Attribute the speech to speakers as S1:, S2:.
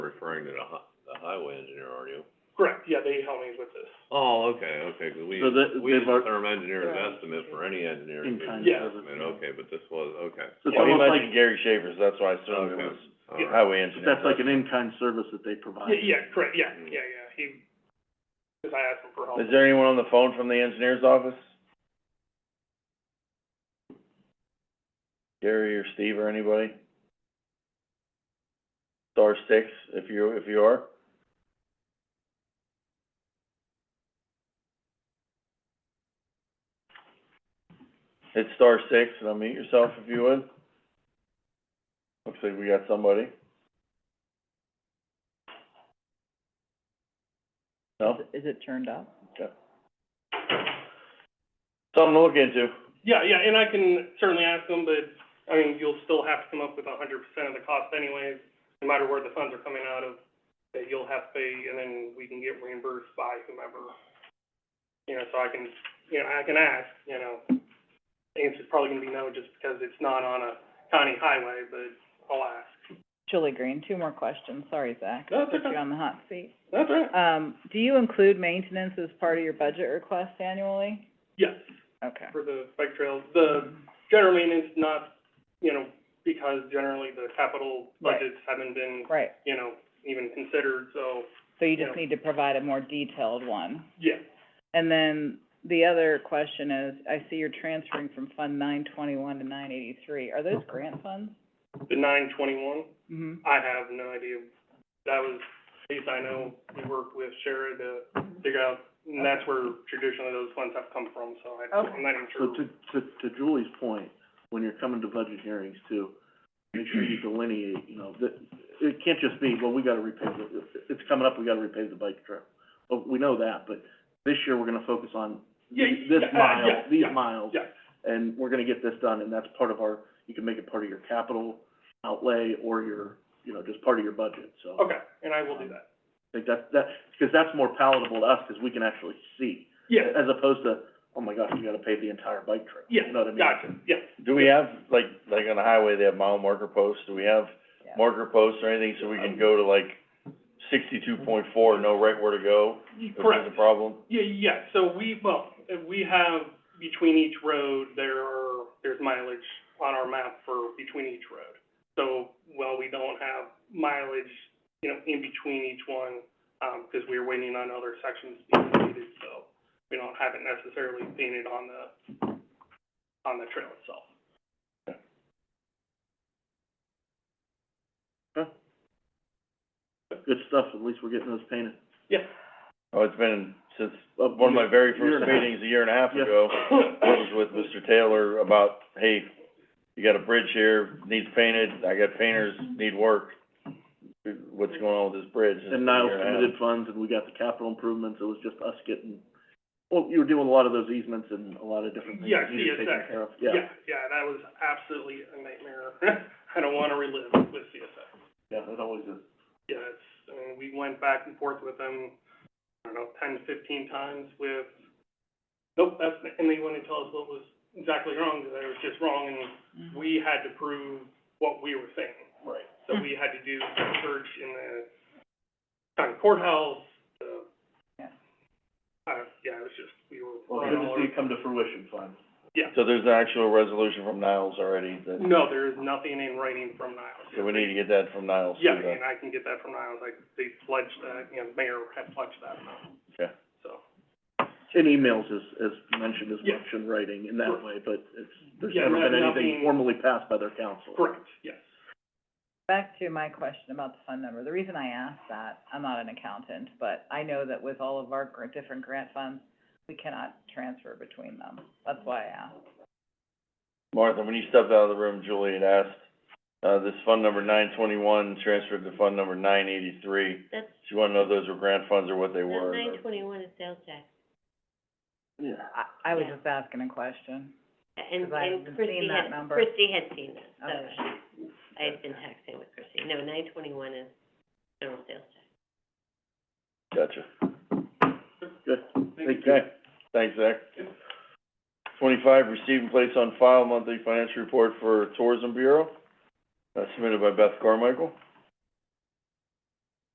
S1: referring to the hi- the highway engineer, are you?
S2: Correct, yeah, they helped me with this.
S1: Oh, okay, okay, 'cause we,
S3: So that-
S1: we
S3: they've
S1: use
S3: al-
S1: the term engineer's
S4: Right.
S1: estimate for any engineer.
S3: In
S1: to
S3: kind
S1: give you
S2: of
S1: an
S2: service,
S1: estimate,
S3: yeah.
S1: Okay, but this was, okay.
S3: So it's
S5: Well, he
S3: almost like, Oh,
S5: mentioned Gary Shavers, that's why I assumed it
S1: Okay.
S5: was
S1: All right.
S5: highway engineer.
S3: that's like an in-kind service that they provide.
S2: Yeah, yeah, correct, yeah, yeah, yeah, he, cause I asked him for help.
S5: Mm. Is there anyone on the phone from the engineer's office? Gary or Steve or anybody? Star six, if you, if you are. Hit star six and unmute yourself if you would. Looks like we got somebody. No?
S4: Is it turned up?
S5: Something to look into.
S2: Yeah, yeah, and I can certainly ask them, but, I mean, you'll still have to come up with a hundred percent of the cost anyways, no matter where the funds are coming out of, that you'll have to pay, and then we can get reimbursed by whomever. You know, so I can, you know, I can ask, you know, answer's probably gonna be no, just because it's not on a county highway, but I'll ask.
S4: Julie Green, two more questions, sorry, Zach.
S2: No, it's
S4: Put
S2: okay.
S4: you on the hot seat.
S2: That's right.
S4: Um, do you include maintenance as part of your budget request annually?
S2: Yes,
S4: Okay.
S2: for the bike trails, the general maintenance, not, you know, because generally the capital
S4: Right.
S2: budgets haven't been,
S4: Right,
S2: you know, even considered, so,
S4: so you just
S2: Yeah.
S4: need to provide a more detailed
S3: Hmm.
S4: one.
S2: yeah.
S4: And then the other question is, I see you're transferring from Fund nine twenty-one to nine eighty-three. Are those grant funds?
S2: The nine twenty-one,
S4: Mm-hmm.
S2: I have no idea. That was, at least I know, we worked with Shara to figure out, and that's where traditionally those funds have come from, so I, I'm not even sure.
S3: So to, to, to Julie's point, when you're coming to budget hearings too, make sure you delineate, you know, that, it can't just be, well, we gotta repay the, it's coming up, we gotta repay the bike trail. Well, we know that, but this year we're gonna focus on
S2: Yeah,
S3: the- this
S2: yeah, uh,
S3: mile,
S2: yeah,
S3: these
S2: yeah,
S3: miles.
S2: yeah.
S3: And we're gonna get this done, and that's part of our, you can make it part of your capital outlay or your, you know, just part of your budget, so.
S2: Okay, and I will do that.
S3: I think that, that, because that's more palatable to us, because we can actually see,
S2: Yeah,
S3: as opposed to, oh my gosh, we gotta pay the entire bike trail.
S2: yeah,
S3: You know what I mean?
S2: gotcha, yeah.
S5: Do we have, like, like on the highway, they have mile marker posts, do we have
S4: Yeah.
S5: marker posts or anything so we can go to like sixty-two point four, know right where to go?
S2: You-
S5: If there's
S2: Correct.
S5: a problem?
S2: Yeah, yeah, so we, well, uh, we have, between each road, there are, there's mileage on our map for between each road. So, while we don't have mileage, you know, in between each one, um, because we're waiting on other sections to be completed, so we don't have it necessarily painted on the, on the trail itself.
S3: Good stuff, at least we're getting those painted.
S2: Yeah.
S5: Oh, it's been since,
S3: Uh,
S5: one of my very
S3: year and
S5: first
S3: a half.
S5: meetings a year and a half
S3: Yeah.
S5: ago, was with Mr. Taylor about, hey, you got a bridge here, needs painted, I got painters, need work. What's going on with this bridge? It's
S3: And
S5: been a
S3: Niles
S5: year and a half.
S3: committed funds, and we got the capital improvements, it was just us getting, well, you were doing a lot of those easements and a lot of different things
S2: Yeah,
S3: that you were
S2: CSX.
S3: taking care of, yeah.
S2: Yeah, yeah, that was absolutely a nightmare. I don't want to relive with CSX.
S3: Yeah, it always is.
S2: Yeah, it's, I mean, we went back and forth with them, I don't know, ten to fifteen times with, nope, that's, and they wouldn't tell us what was exactly wrong, that it was just wrong, and
S4: Mhm.
S2: we had to prove what we were saying.
S3: Right.
S2: So we had to do research in the county courthouse, the,
S4: Yeah.
S2: uh, yeah, it was just, we were
S3: Well,
S2: running
S3: good
S2: all
S3: to
S2: over.
S3: see it come to fruition finally.
S5: So there's an actual resolution from Niles already that,
S2: No, there is nothing in writing from Niles.
S5: so we need to get that from Niles too,
S2: Yeah,
S5: then.
S2: and I can get that from Niles, like, they pledged that, you know, mayor had pledged that amount.
S5: Okay.
S2: So.
S3: In emails is, is mentioned as
S2: Yeah.
S3: much in writing in that way, but it's, there's
S2: Yeah,
S3: never
S2: no-
S3: been anything
S2: nothing-
S3: formally passed by their council.
S2: Correct, yes.
S4: Back to my question about the fund number, the reason I asked that, I'm not an accountant, but I know that with all of our gr- different grant funds, we cannot transfer between them, that's why I asked.
S5: Martha, when you stepped out of the room, Julie had asked, uh, this fund number nine twenty-one transferred to fund number nine eighty-three.
S6: That's,
S5: She wanted to know if those were grant funds or what they
S6: that
S5: were.
S6: nine twenty-one is sales tax,
S3: Yeah.
S4: I, I was
S6: Yeah.
S4: just asking a question.
S6: and,
S4: 'Cause I
S6: and
S4: haven't
S6: Christie
S4: seen that
S6: had,
S4: number.
S6: Christie had seen that, so
S4: Okay.
S6: she, I had been texting with Christie, no, nine twenty-one is general sales tax.
S5: Gotcha.
S3: Good. Thank you.
S5: Okay, thanks, Zach. Twenty-five, receive and place on file monthly financial report for Tourism Bureau, uh, submitted by Beth Carmichael.